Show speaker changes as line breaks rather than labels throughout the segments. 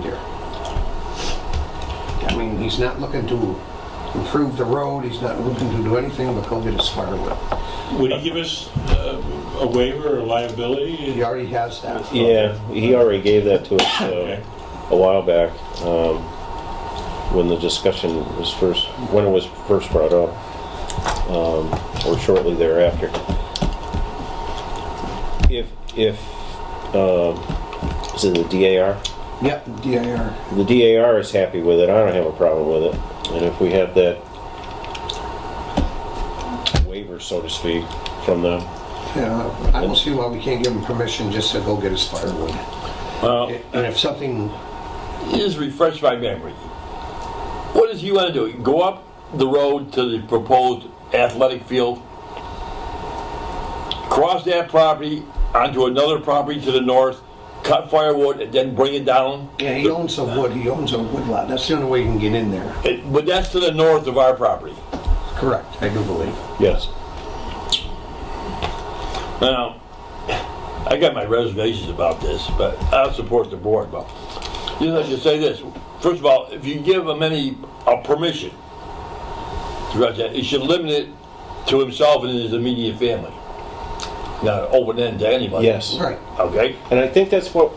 here. I mean, he's not looking to improve the road, he's not looking to do anything but go get his firewood.
Would he give us uh, a waiver or liability?
He already has that.
Yeah, he already gave that to us
Okay.
uh, a while back, um, when the discussion was first, when it was first brought up, um, or shortly thereafter. If, if, um, is it the DAR?
Yep, DIR.
The DAR is happy with it, I don't have a problem with it, and if we have that waiver, so to speak, from them,
Yeah, I don't see why we can't give him permission just to go get his firewood.
Well,
And if something,
just refresh my memory. What does he want to do? Go up the road to the proposed athletic field, cross that property onto another property to the north, cut firewood, and then bring it down?
yeah, he owns a wood, he owns a wood lot, that's the only way he can get in there.
It- But that's to the north of our property.
Correct, I do believe.
yes.
Now, I got my reservations about this, but I'll support the board, but just like to say this, first of all, if you give him any, a permission to write that, he should limit it to himself and his immediate family. Not open end to anybody.
Yes.
Right.
Okay,
And I think that's what,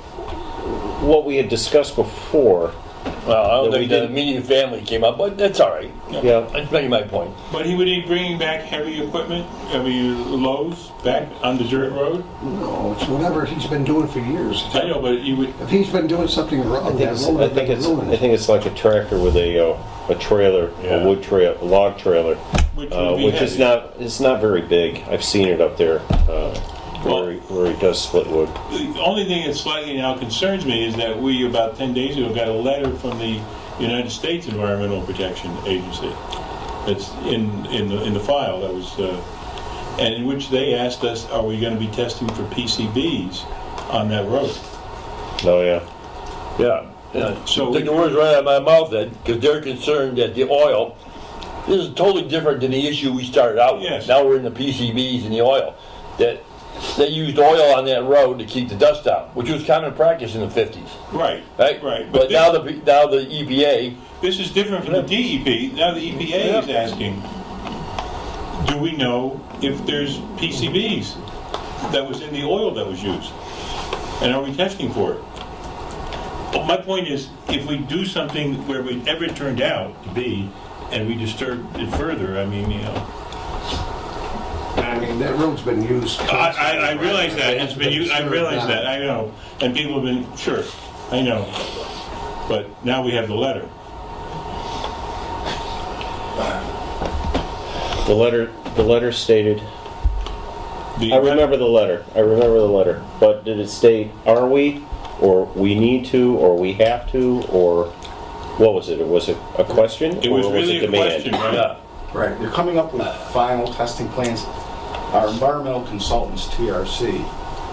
what we had discussed before,
well, I
That
don't
we
think the
didn't-
immediate family came up, but that's all right.
Yeah.
That's making my point.
But he would be bringing back heavy equipment, heavy loads back on the dirt road?
No, it's whatever he's been doing for years.
I know, but he would,
If he's been doing something
I
wrong,
think
that
it's,
road
I
has
think
been
it's, I
ruined.
think it's like a tractor with a, uh, a trailer,
Yeah.
a wood trail, a log trailer,
which
uh,
would be
which is
heavy.
not, it's not very big. I've seen it up there, uh,
Well-
where, he- where he does split wood.
The only thing that slightly now concerns me is that we, about 10 days ago, got a letter from the United States Environmental Protection Agency. That's in, in the, in the file that was, uh, and in which they asked us, are we going to be testing for PCBs on that road?
Oh, yeah.
Yeah.
So-
So take the words right out of my mouth then, because they're concerned that the oil, this is totally different than the issue we started out with.
Yes.
Now we're in the PCBs and the oil. That they used oil on that road to keep the dust out, which was common practice in the fifties,
Right.
right?
Right.
But
this-
now the now the E EPA,
This is different from the DEP. Now the EPA is asking, do we know if there's PCBs that was in the oil that was used? And are we testing for it? But my point is, if we do something where we ever turned out to be, and we disturb it further, I mean, you know.
I mean, that road's been used.
I, I, I realize that, it's been, u- I realize that, I know, and people have been, sure, I know. But now we have the letter.
The letter, the letter stated,
The-
I remember the letter, I remember the letter, but did it state, are we, or we need to, or we have to, or what was it? Was it a question?
It
or
was really a
demand?
question, right?
yeah,
Right.
They're coming up with final testing plans. Our environmental consultants, TRC,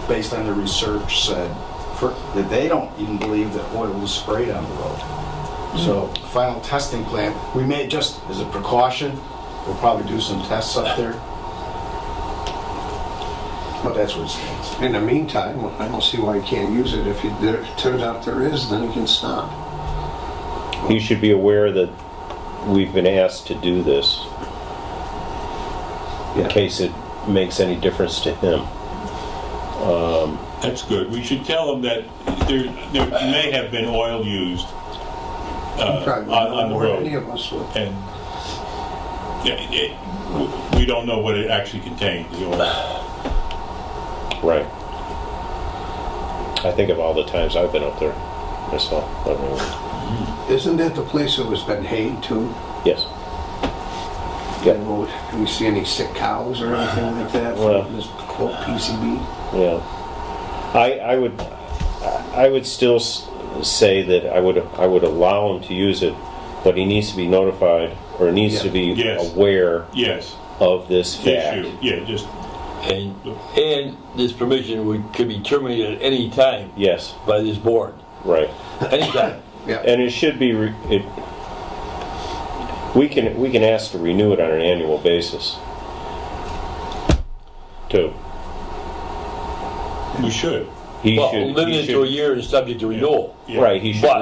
based on their research, said for- that they don't even believe that oil was sprayed on the road. So final testing plan, we may just, as a precaution, we'll probably do some tests up there. But that's what it stands.
In the meantime, I don't see why he can't use it. If he- there- it turns out there is, then he can stop.
You should be aware that we've been asked to do this in
Yeah.
case it makes any difference to him.
That's good. We should tell them that there, there may have been oil used,
Probably
Uh, on- on the
more than
road.
Any of us would.
and yeah, it- w- we don't know what it actually contained, the oil.
Right. I think of all the times I've been up there myself. I mean,
Isn't that the place that was been hayed too?
Yes.
You
Yeah.
know, Do we see any sick cows or anything like that
Well-
from this quote PCB?
Yeah. I, I would, I would still s- say that I would, I would allow him to use it, but he needs to be notified or needs to be
Yeah. Yes.
aware
Yes,
of this fact.
issue, yeah, just,
and and this permission would could be terminated at any time
Yes,
by this board,
right.
anytime.
Yeah,
And it should be, re- it, we can, we can ask to renew it on an annual basis. Too.
we should.
He
Well,
should- he
limited to a
should-
year and subject to renewal.
Yeah.
Right, he should
But